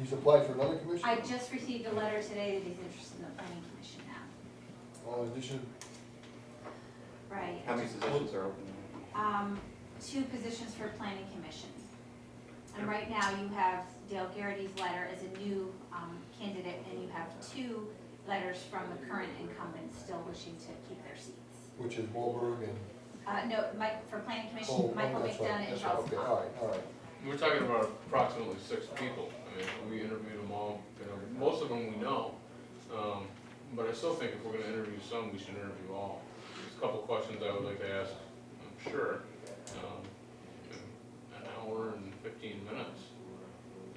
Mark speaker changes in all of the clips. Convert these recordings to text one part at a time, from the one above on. Speaker 1: He's applied for another commission?
Speaker 2: I just received a letter today that he's interested in the planning commission now,
Speaker 1: Well, in addition,
Speaker 2: right?
Speaker 3: How many positions are open?
Speaker 2: Um, two positions for planning commission. And right now you have Dale Garrity's letter as a new, um, candidate, and you have two letters from the current incumbents still wishing to keep their seats.
Speaker 1: which is Wahlberg and.
Speaker 2: Uh, no, Mike, for planning
Speaker 1: oh,
Speaker 2: commission, Michael
Speaker 1: that's right,
Speaker 2: McDonough and
Speaker 1: that's right,
Speaker 2: Charles
Speaker 1: Okay,
Speaker 2: Pop.
Speaker 1: all right, all right.
Speaker 4: We're talking about approximately six people. I mean, we interviewed them all, you know, most of them we know. Um, But I still think if we're gonna interview some, we should interview all. There's a couple of questions I would like to ask, I'm sure. Um, you know, An hour and fifteen minutes,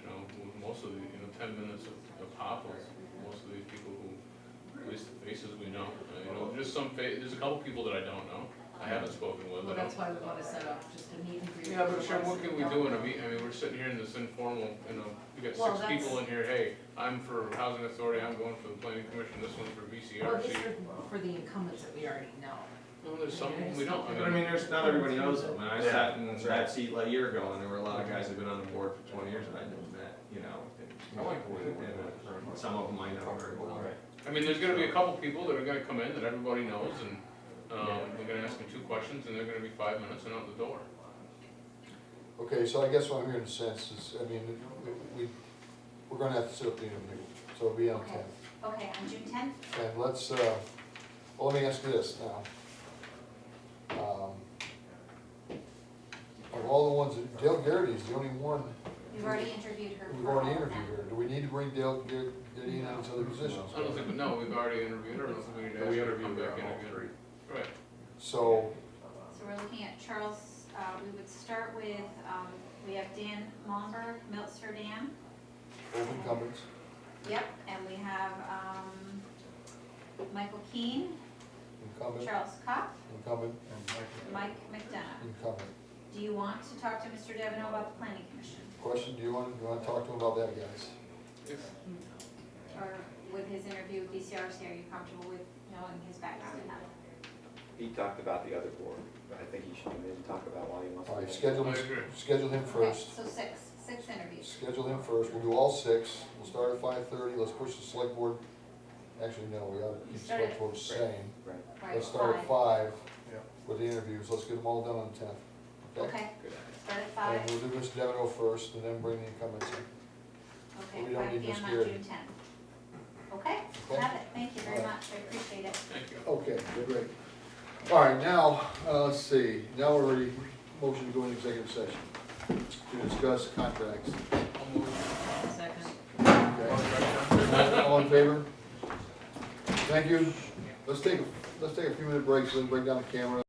Speaker 4: you know, with most of the, you know, ten minutes of of hop was most of these people who, at least the faces we know. Uh, You know, there's some, fa- there's a couple people that I don't know, I haven't spoken with. I
Speaker 5: Well,
Speaker 4: don't-
Speaker 5: that's why we wanna set up just a meet and greet.
Speaker 4: Yeah, but Sharon, what can we do in a meet, I mean, we're sitting here in this informal, you know, we got
Speaker 5: Well,
Speaker 4: six
Speaker 5: that's-
Speaker 4: people in here, hey, I'm for housing authority, I'm going for the planning commission, this one's for
Speaker 5: Well, this
Speaker 4: VCRC.
Speaker 5: is for the incumbents that we already know.
Speaker 4: No, there's some we don't,
Speaker 6: But I
Speaker 4: I mean,
Speaker 6: mean, there's, not everybody knows them, and I
Speaker 3: Yeah,
Speaker 6: sat in
Speaker 3: that's
Speaker 6: that
Speaker 3: right.
Speaker 6: seat like a year ago, and there were a lot of guys who've been on the board for twenty years that I didn't met, you know. and-
Speaker 4: I like the way they
Speaker 6: and Some of them I know very well.
Speaker 4: I mean, there's gonna be a couple people that are gonna come in that everybody knows and, um, we're gonna ask them two questions and they're gonna be five minutes and out the door.
Speaker 1: Okay, so I guess what I'm hearing in a sense is, I mean, we, we- we're gonna have to set up the interview, so it'll be on
Speaker 2: Okay.
Speaker 1: ten.
Speaker 2: Okay, on June tenth,
Speaker 1: And let's, uh, well, let me ask you this now. Um, Of all the ones, that- Dale Garrity is the only one
Speaker 2: we've already interviewed her.
Speaker 1: we've
Speaker 2: for all
Speaker 1: already
Speaker 2: of them.
Speaker 1: interviewed here. Do we need to bring Dale Gar- Garrity in on these other positions?
Speaker 4: I don't think, no, we've already interviewed her, I don't think we need to ask her to come back in again. Right,
Speaker 1: So,
Speaker 2: So we're looking at Charles, uh, we would start with, um, we have Dan Momberg, Meltzer Dam.
Speaker 1: open incumbents,
Speaker 2: Yep. And we have, um, Michael Keane,
Speaker 1: incumbent,
Speaker 2: Charles Kopp,
Speaker 1: incumbent,
Speaker 2: Mike McDonough.
Speaker 1: incumbent.
Speaker 2: Do you want to talk to Mr. Devino about the planning commission?
Speaker 1: Question, do you want, you want to talk to him about that, guys?
Speaker 4: if,
Speaker 2: Or with his interview with DCRC, are you comfortable with knowing his background and that?
Speaker 3: He talked about the other board, but I think he should come in and talk about why he wants to.
Speaker 1: All right,
Speaker 3: be-
Speaker 1: schedule,
Speaker 4: I agree.
Speaker 1: schedule him first.
Speaker 2: Okay, So six, six interviews.
Speaker 1: Schedule him first, we'll do all six, we'll start at five thirty, let's push the select board, actually, no, we ought to keep the select board the same.
Speaker 3: Right,
Speaker 2: Right,
Speaker 1: Let's start at
Speaker 2: five.
Speaker 1: five with the interviews, let's get them all done on the tenth.
Speaker 2: Okay,
Speaker 3: good.
Speaker 2: start at five,
Speaker 1: And we'll do Mr. Devido first, and then bring the incumbents in, we
Speaker 2: okay,
Speaker 1: don't
Speaker 2: five
Speaker 1: need
Speaker 2: PM
Speaker 1: Ms.
Speaker 2: on
Speaker 1: Garrett.
Speaker 2: June tenth. Okay,
Speaker 1: okay?
Speaker 2: have it, thank you very
Speaker 1: All right.
Speaker 2: much, I appreciate it.
Speaker 4: thank you.
Speaker 1: Okay, great. All right, now, uh, let's see, now we're ready, motion to go into executive session to discuss contracts.
Speaker 5: Second.
Speaker 1: Okay. All in favor? Thank you, let's take, let's take a few minute breaks, then bring down the camera.